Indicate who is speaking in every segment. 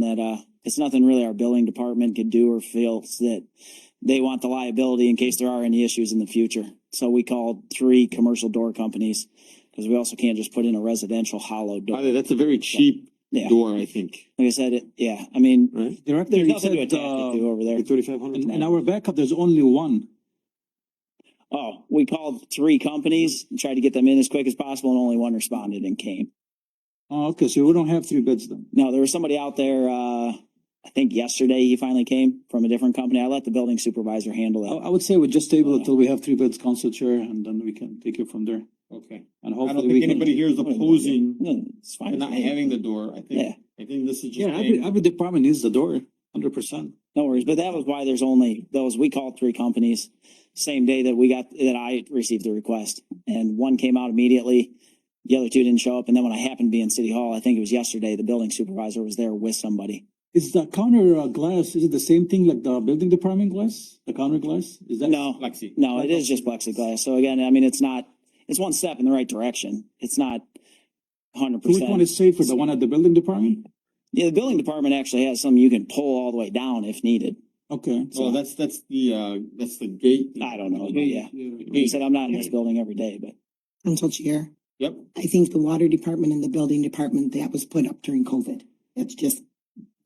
Speaker 1: that, uh, it's nothing really our billing department could do or feels that they want the liability in case there are any issues in the future. So we called three commercial door companies because we also can't just put in a residential hollow
Speaker 2: By
Speaker 1: door.
Speaker 2: the way, that's a very cheap
Speaker 1: Yeah,
Speaker 2: door, I think,
Speaker 1: like I said, it, yeah, I mean,
Speaker 2: right?
Speaker 3: Director,
Speaker 1: there's
Speaker 3: you
Speaker 1: nothing to
Speaker 3: said,
Speaker 1: attach it
Speaker 3: uh,
Speaker 1: to over there.
Speaker 2: Thirty-five hundred?
Speaker 3: in, in our backup, there's only one.
Speaker 1: Oh, we called three companies, and tried to get them in as quick as possible and only one responded and came.
Speaker 3: Oh, okay, so we don't have three bids then.
Speaker 1: No, there was somebody out there, uh, I think yesterday he finally came from a different company. I let the building supervisor handle
Speaker 3: Oh, I,
Speaker 1: that.
Speaker 3: I would say we just table it till we have three bids, Council Chair, and then we can take it from there.
Speaker 4: Okay,
Speaker 3: And
Speaker 4: I don't
Speaker 3: hopefully we
Speaker 4: think
Speaker 3: can.
Speaker 4: anybody here is opposing
Speaker 1: No, Hmm, It's fine.
Speaker 4: not having the door, I
Speaker 1: Yeah.
Speaker 4: think, I think this is just.
Speaker 3: Yeah, every, every department needs the door, hundred percent.
Speaker 1: No worries, but that was why there's only those, we called three companies, same day that we got, that I received the request. And one came out immediately, the other two didn't show up, and then when I happened to be in City Hall, I think it was yesterday, the building supervisor was there with somebody.
Speaker 3: Is the counter uh, glass, is it the same thing like the building department glass, the counter glass? Is that?
Speaker 1: No,
Speaker 4: Lexi.
Speaker 1: no, it is just plexiglass, so again, I mean, it's not, it's one step in the right direction, it's not hundred
Speaker 3: Which one
Speaker 1: percent.
Speaker 3: is safer, the one at the building department?
Speaker 1: Yeah, the building department actually has some you can pull all the way down if needed,
Speaker 3: Okay.
Speaker 4: Well, that's, that's the, uh, that's the gate.
Speaker 1: I don't know, but yeah. He
Speaker 4: Gate.
Speaker 1: said, I'm not in this building every day, but.
Speaker 5: Council Chair,
Speaker 4: Yep,
Speaker 5: I think the water department and the building department, that was put up during COVID. That's just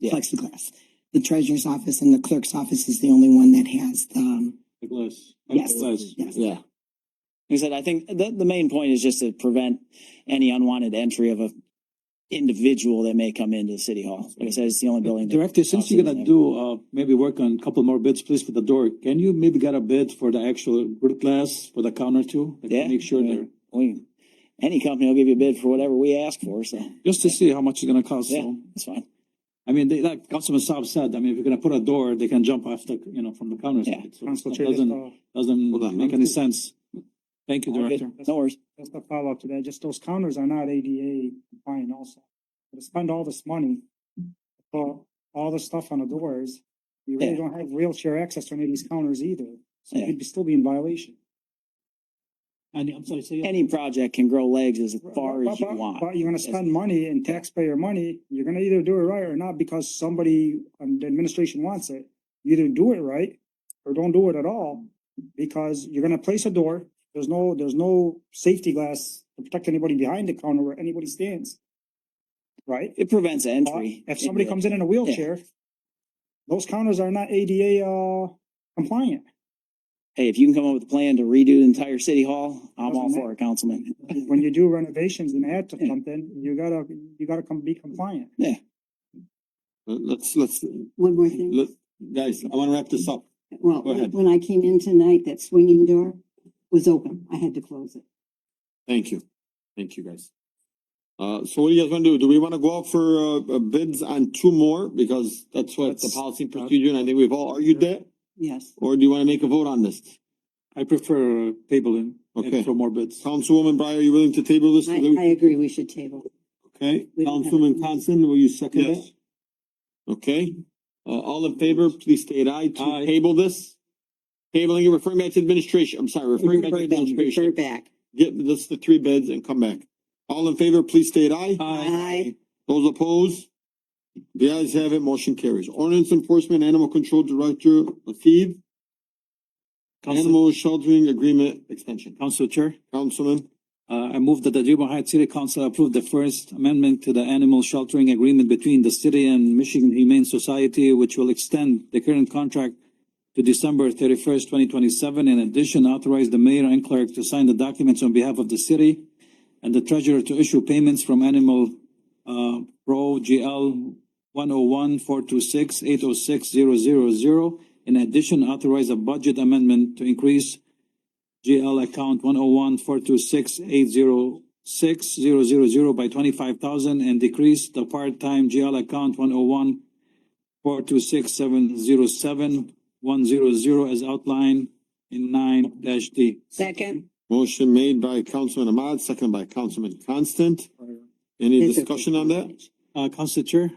Speaker 1: Yeah.
Speaker 5: plexiglass. The treasurer's office and the clerk's office is the only one that has, um,
Speaker 3: The glass.
Speaker 5: Yes.
Speaker 3: Glass.
Speaker 5: yes.
Speaker 1: Like I said, I think the, the main point is just to prevent any unwanted entry of a individual that may come into City Hall. Like I said, it's the only building. that-
Speaker 3: Director, since you're gonna do, uh, maybe work on a couple more bids, please, for the door, can you maybe get a bid for the actual root glass for the counter too? Like,
Speaker 1: Yeah.
Speaker 3: Make sure they're,
Speaker 1: We, any company will give you a bid for whatever we ask for, so
Speaker 3: just to see how much it's gonna cost,
Speaker 1: Yeah.
Speaker 3: so.
Speaker 1: that's fine.
Speaker 3: I mean, they, like Councilman Saab said, I mean, if you're gonna put a door, they can jump off the, you know, from the counter.
Speaker 1: Yeah.
Speaker 3: side. So it Doesn't,
Speaker 2: Hold on.
Speaker 3: doesn't make any sense. Thank you,
Speaker 1: All good.
Speaker 3: Director.
Speaker 1: No worries.
Speaker 6: Just a follow-up to that, just those counters are not ADA compliant also. To spend all this money, put all the stuff on the doors, you really
Speaker 1: Yeah.
Speaker 6: don't have wheelchair access to any of these counters either. So
Speaker 1: Yeah.
Speaker 6: you'd be- still be in violation.
Speaker 3: And I'm sorry, say.
Speaker 1: Any project can grow legs as far
Speaker 6: But-
Speaker 1: as you
Speaker 6: but-
Speaker 1: want.
Speaker 6: But you're gonna spend money and taxpayer money, you're gonna either do it right or not because somebody on the administration wants it. You Either do it right or don't do it at all, because you're gonna place a door, there's no, there's no safety glass to protect anybody behind the counter where anybody stands. Right?
Speaker 1: It prevents entry.
Speaker 6: If somebody comes in in a wheelchair, those counters are not ADA, uh, compliant.
Speaker 1: Hey, if you can come up with a plan to redo the entire City Hall, I'm all
Speaker 6: Doesn't
Speaker 1: for it, Councilman.
Speaker 6: When you do renovations and add to
Speaker 1: Yeah.
Speaker 6: something, you gotta, you gotta come be compliant.
Speaker 2: Let's, let's,
Speaker 7: One more
Speaker 2: let,
Speaker 7: thing.
Speaker 2: guys, I wanna wrap this up.
Speaker 7: Well,
Speaker 2: go ahead.
Speaker 7: when I came in tonight, that swinging door was open. I had to close it.
Speaker 2: Thank you. Thank you, guys. Uh, so what do you guys wanna do? Do we wanna go out for, uh, uh, bids on two more? Because that's what the
Speaker 3: That's-
Speaker 2: policy and procedure, and I think we've all argued that.
Speaker 7: Yes.
Speaker 2: Or do you wanna make a vote on this?
Speaker 3: I prefer uh, tabling and
Speaker 2: Okay.
Speaker 3: for more bids.
Speaker 2: Councilwoman Breyer, are you willing to table this?
Speaker 7: I, I agree. We should table.
Speaker 2: Okay,
Speaker 7: We don't have-
Speaker 2: Councilman Constant, will you second that?
Speaker 3: Yes.
Speaker 2: Okay, uh, all in favor, please state aye to
Speaker 3: Aye.
Speaker 2: table this. Tabling and referring back to administration, I'm sorry, referring back to
Speaker 7: Refer back, refer
Speaker 2: administration.
Speaker 7: back.
Speaker 2: Get this, the three bids and come back. All in favor, please state aye.
Speaker 3: Aye.
Speaker 7: Aye.
Speaker 2: Those opposed? The ayes have it, motion carries. Ordinance Enforcement Animal Control Director Latif,
Speaker 3: Council,
Speaker 2: Animal Sheltering Agreement Extension.
Speaker 3: Council Chair.
Speaker 2: Councilman,
Speaker 3: Uh, I move that the Dearborn Heights City Council approve the first amendment to the animal sheltering agreement between the city and Michigan Humane Society, which will extend the current contract to December thirty-first, twenty twenty-seven. In addition, authorize the mayor and clerk to sign the documents on behalf of the city and the treasurer to issue payments from animal, uh, pro GL one oh one four two six eight oh six zero zero zero. In addition, authorize a budget amendment to increase GL account one oh one four two six eight zero six zero zero zero by twenty-five thousand and decrease the part-time GL account one oh one four two six seven zero seven one zero zero as outlined in nine dash D.
Speaker 7: Second.
Speaker 2: motion made by Councilman Ahmad, seconded by Councilman Constant. Any discussion on that?
Speaker 3: Uh, Council Chair,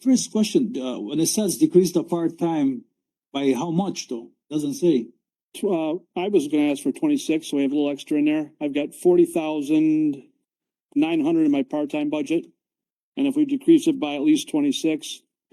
Speaker 3: first question, uh, when it says decrease the part-time, by how much though? Doesn't say.
Speaker 8: Uh, I was gonna ask for twenty-six, so we have a little extra in there. I've got forty thousand nine hundred in my part-time budget. And if we decrease it by at least twenty-six,